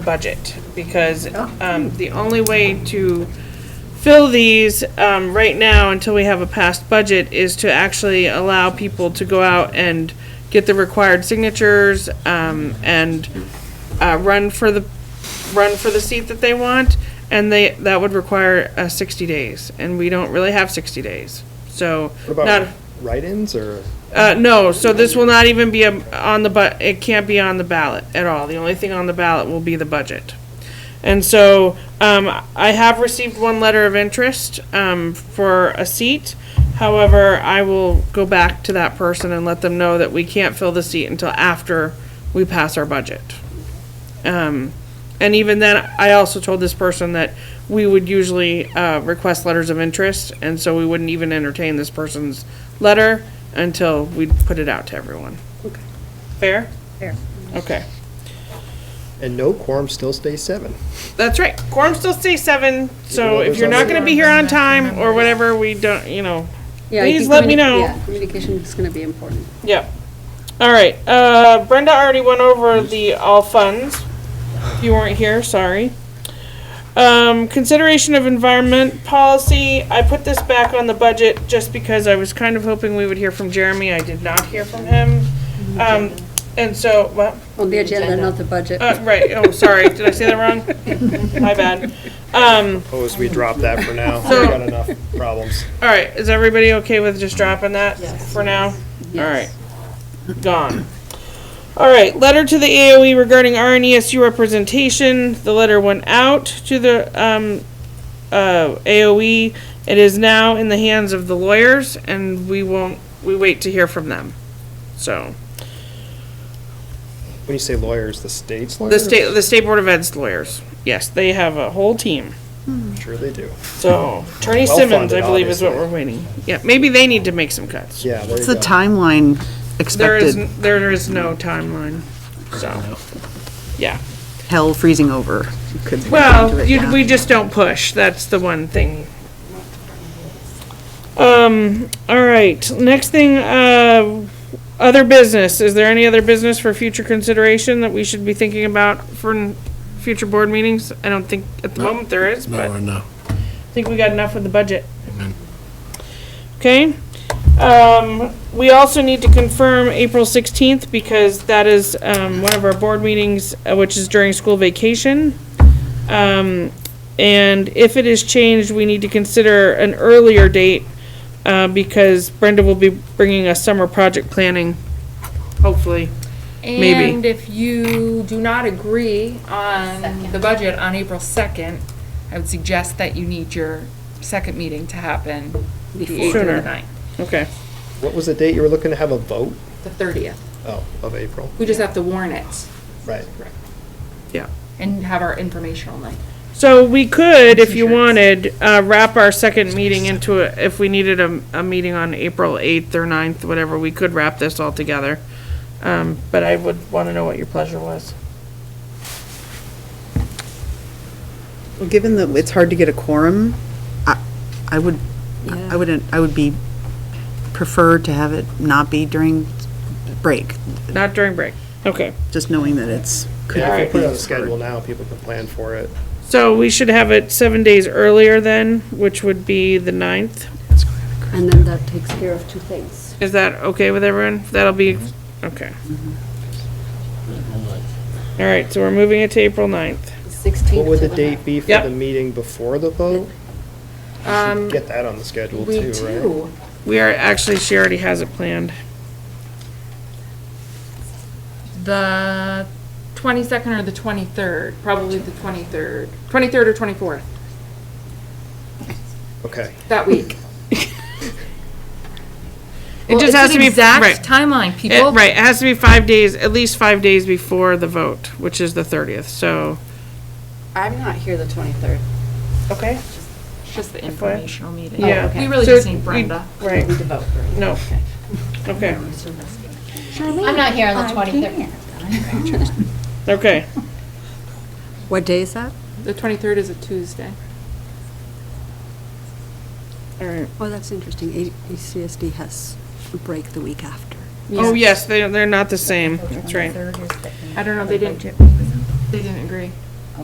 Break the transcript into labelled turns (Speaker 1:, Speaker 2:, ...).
Speaker 1: budget, because um, the only way to fill these um, right now until we have a passed budget is to actually allow people to go out and get the required signatures um, and uh, run for the, run for the seat that they want, and they, that would require uh, 60 days, and we don't really have 60 days, so.
Speaker 2: What
Speaker 1: not-
Speaker 2: about write-ins or?
Speaker 1: Uh, no, so this will not even be a- on the bu, it can't be on the ballot at all. The only thing on the ballot will be the budget. And so, um, I have received one letter of interest, um, for a seat. However, I will go back to that person and let them know that we can't fill the seat until after we pass our budget. Um, and even then, I also told this person that we would usually uh, request letters of interest, and so we wouldn't even entertain this person's letter until we put it out to everyone. Fair?
Speaker 3: Fair.
Speaker 1: Okay.
Speaker 2: And no quorum still stays seven.
Speaker 1: That's right. Quorum still stays seven, so
Speaker 2: Even though
Speaker 1: if you're not
Speaker 2: there's
Speaker 1: gonna be here on time or whatever, we don't, you know,
Speaker 3: Yeah, I
Speaker 1: Please
Speaker 3: think
Speaker 1: let me
Speaker 3: communi-
Speaker 1: know.
Speaker 3: yeah, Communication is going to be important.
Speaker 1: yeah. All right, uh, Brenda already went over the all funds. If you weren't here, sorry. Um, consideration of environment policy, I put this back on the budget just because I was kind of hoping we would hear from Jeremy. I did not hear from him. Um, and so, what?
Speaker 3: On the agenda, not the budget.
Speaker 1: Uh, right, oh, sorry, did I say that wrong? My bad. Um,
Speaker 2: Suppose we drop that for now.
Speaker 1: So-
Speaker 2: We've got enough problems.
Speaker 1: all right, is everybody okay with just dropping that for now? All right,
Speaker 3: Yes.
Speaker 1: gone. All right, letter to the AOE regarding RNESU representation. The letter went out to the um, uh, AOE. It is now in the hands of the lawyers, and we won't. We wait to hear from them. So
Speaker 2: When you say lawyers, the state's
Speaker 1: the
Speaker 2: lawyers?
Speaker 1: state, the state board of ed's lawyers. Yes, they have a whole team.
Speaker 2: Sure they do.
Speaker 1: So attorney
Speaker 2: Well
Speaker 1: Simmons, I
Speaker 2: funded,
Speaker 1: believe, is what
Speaker 2: obviously.
Speaker 1: we're waiting. Yeah, maybe they need to make some cuts.
Speaker 2: Yeah, there
Speaker 4: What's
Speaker 2: you
Speaker 4: the
Speaker 2: go.
Speaker 4: timeline
Speaker 1: There is
Speaker 4: expected?
Speaker 1: n- there is no timeline. So yeah.
Speaker 4: Hell freezing over. You could- do
Speaker 1: Well,
Speaker 4: it
Speaker 1: you,
Speaker 4: now.
Speaker 1: we just don't push, that's the one thing. Um, all right, next thing, uh, other business, is there any other business for future consideration that we should be thinking about for n- future board meetings? I don't think, at the moment there is, but
Speaker 5: No, no.
Speaker 1: I think we got enough with the budget. Okay, um, we also need to confirm April sixteenth, because that is, um, one of our board meetings, uh, which is during school vacation. Um, and if it is changed, we need to consider an earlier date, uh, because Brenda will be bringing us summer project planning, hopefully. Maybe.
Speaker 6: And if you do not agree on the budget on April 2nd, I would suggest that you need your second meeting to happen the 8th or
Speaker 1: Sooner.
Speaker 6: the 9th,
Speaker 1: Okay,
Speaker 2: What was the date you were looking to have a vote?
Speaker 6: the 30th.
Speaker 2: Oh, of April,
Speaker 6: We just have to warn it
Speaker 2: right.
Speaker 1: yeah.
Speaker 6: and have our informational night.
Speaker 1: So we could, if you
Speaker 6: Insurance.
Speaker 1: wanted, uh, wrap our second meeting into, a- if we needed a, a meeting on April 8th or 9th, whatever, we could wrap this all together. Um, But I would want to know what your pleasure was.
Speaker 4: Well, Given that it's hard to get a quorum, I, I would, I wouldn't, I would be, prefer to have it not be during break,
Speaker 1: Not during break. Okay.
Speaker 4: just knowing that it's. could
Speaker 2: Yeah, if we put it
Speaker 4: be
Speaker 2: on the
Speaker 4: deferred.
Speaker 2: schedule now, people can plan for it.
Speaker 1: So we should have it seven days earlier then, which would be the 9th.
Speaker 3: And then that takes care of two things.
Speaker 1: Is that okay with everyone? That'll be, okay. All right, so we're moving it to April 9th.
Speaker 2: What
Speaker 3: 16th
Speaker 2: would the
Speaker 3: to the
Speaker 2: date be for
Speaker 1: Yep.
Speaker 2: the meeting before the vote?
Speaker 6: Um,
Speaker 2: Get that on the schedule
Speaker 6: we
Speaker 2: too, right?
Speaker 6: do.
Speaker 1: We are, actually, she already has it planned.
Speaker 6: The 22nd or the 23rd, probably the 23rd, 23rd or 24th,
Speaker 2: Okay,
Speaker 6: that week.
Speaker 1: It just has to be, right.
Speaker 6: Exact timeline,
Speaker 1: It-
Speaker 6: people.
Speaker 1: right, it has to be five days, at least five days before the vote, which is the thirtieth, so.
Speaker 7: I'm not here the 23rd.
Speaker 1: Okay.
Speaker 6: It's just the informational meeting.
Speaker 1: Yeah.
Speaker 6: We really
Speaker 1: So
Speaker 6: just need
Speaker 1: we-
Speaker 6: Brenda.
Speaker 1: Right,
Speaker 7: We devote for it.
Speaker 1: no. Okay,
Speaker 8: I'm not here on the 23rd.
Speaker 1: okay.
Speaker 3: What day is that?
Speaker 6: The 23rd is a Tuesday.
Speaker 1: All right.
Speaker 3: Oh, that's interesting. A- ACSD has a break the week after.
Speaker 1: Oh, yes, they, they're not the same, that's right.
Speaker 6: I don't know, they didn't, they didn't agree.